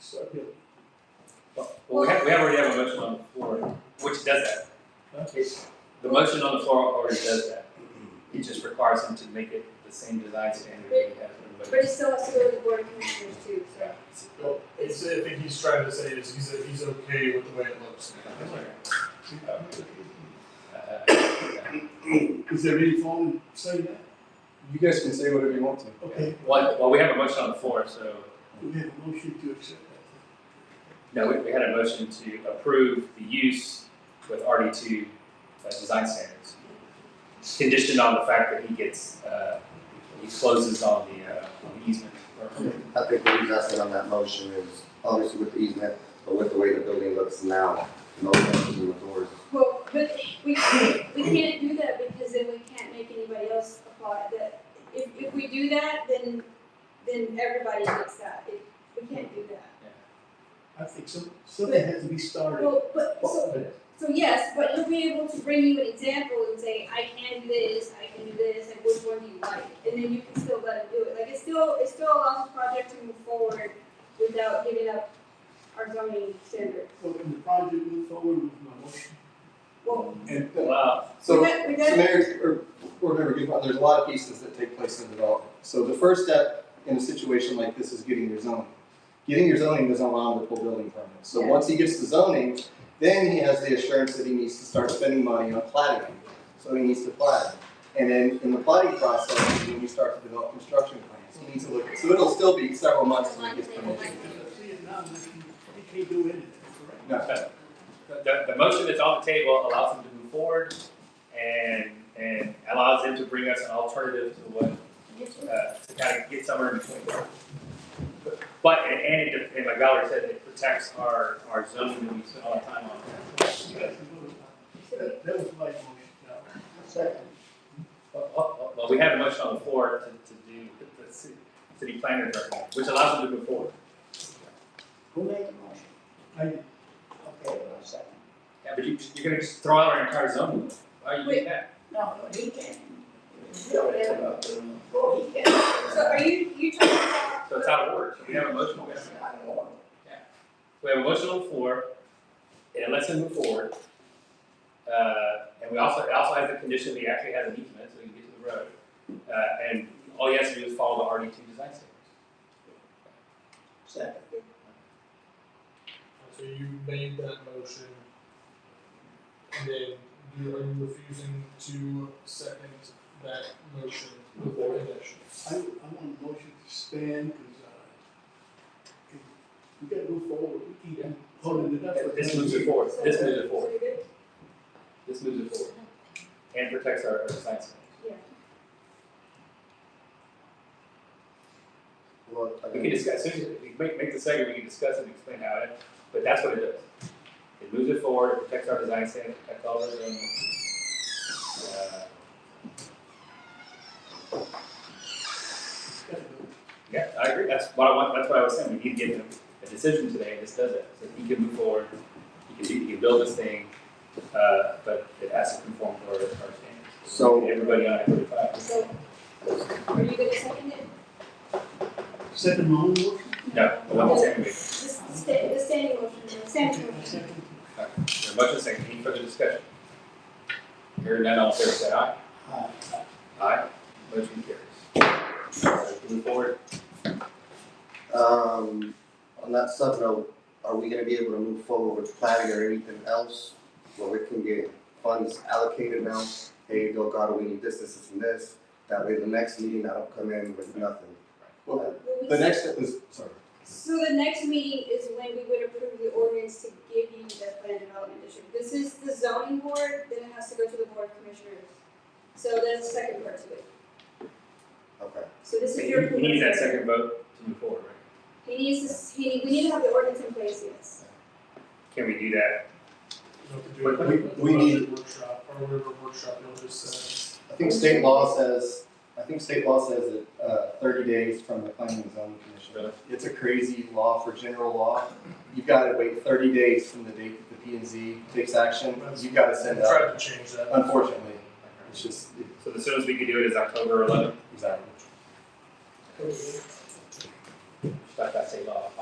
so. Well, we have, we have already have a motion on the floor, which does that. It's- The motion on the floor already does that. It just requires him to make it the same design standard that he has for But it still has to go to the board of commissioners too, so. Well, It's, I think he's trying to say is he's, he's okay with the way it looks now. everybody. Is there any form saying that? You guys can say whatever you want to. Okay, Well, well, we have a motion on the floor, so, we have a motion to accept that. no, we, we had a motion to approve the use with RD two, uh, design standards. Conditioned on the fact that he gets, uh, he closes on the, uh, on the easement. I think what he's asking on that motion is obviously with the easement, but with the way the building looks now, no changes in the doors. Well, but we, we can't do that because then we can't make anybody else apply that. If, if we do that, then, then everybody gets that. If, we can't do that. I think some, something has to be started. Well, but, so, so yes, but he'll be able to bring you an example and say, I can do this, I can do this, like which one do you like? And then you can still let him do it. Like it still, it still allows the project to move forward without giving up our zoning standards. So can the project move forward with my motion? Well, And Wow, we So, got, we got. so Mayor, or Board Member Guzman, there's a lot of pieces that take place in development. So the first step in a situation like this is getting your zoning. Getting your zoning doesn't allow him to pull building permits. So Yeah. once he gets the zoning, then he has the assurance that he needs to start spending money on plating. So he needs to plat. And then in the plating process, is when you start to develop construction plans, he needs to look, so it'll still be several months till he gets permission. See, and now, we can't do anything, correct? No, the, the motion that's on the table allows him to move forward and, and allows him to bring us an alternative to what, uh, to kind of get somewhere in between. But, and, and it, and like Valerie said, it protects our, our zoning that we spend all our time on. That, that was my motion, now. Well, well, well, we have a motion on the floor to, to do the city, city planner's recommendation, which allows him to move forward. Who made the motion? I, Okay, well, I second. Yeah, but you, you're gonna just throw out our entire zoning, why are you doing that? No, no, he can. Bill, they have a- oh, he can. So are you, you talking about? So it's out of order, so we have a motion, we have a It's not in order. We have a motion on the floor, and it lets him move forward. Uh, and we also, it also has the condition that he actually has an easement, so he can get to the road. Uh, and all he has to do is follow the RD two design standards. Second. So you made that motion. And then you are you refusing to second that motion with the conditions? I, I want a motion to stand, cause, uh, we gotta move forward, we keep holding it up. for This another moves it year. forward, this moves it So forward, you're good? this moves it forward, and protects our, our design standards. Yeah. well, I We think- can discuss, as soon as we make, make the second, we can discuss and explain how it, but that's what it does. It moves it forward, it protects our design standards, protects all the zoning. Uh, Uh, Yeah, I agree. That's what I want, that's what I was saying. We need to give him a decision today. This does it. So he can move forward. He can, do- he can build this thing, uh, but it has to conform to our, our standards. So- Everybody on I forty-five. So, are you gonna second it? Second my own motion? No, I'm not saying we, The sta- the standing motion, the standing motion. there's much of saying, any further discussion? Hearing none, all in favor, say aye. Aye. Aye. Motion carries. So Move forward. Um, on that subnote, are we gonna be able to move forward with planning or anything else? Where we can get funds allocated now, hey, Delgado, we need this, this, this, and this, that way the next meeting I don't come in with nothing. Will we- The next step is, sorry, So the next meeting is when we would approve the ordinance to give you the plan development district. This is the zoning board, then it has to go to the board of commissioners. So that's the second part to it. okay, So this is He your. he needs that second vote to move forward, right? He needs to, he, we need to have the ordinance in place, yes. Can we do that? You have to do it We- at the we budget need- Workshop, or whatever workshop you'll just, I think state law says, I think state law says that, uh, thirty days from the planning and zoning commission. Really? It's a crazy law for general law, you've gotta wait thirty days from the date that the P and Z takes action, you've gotta uh, send out, tried to change that. unfortunately, it's just, So the soonest we could do it is October eleventh. exactly. That's that state law.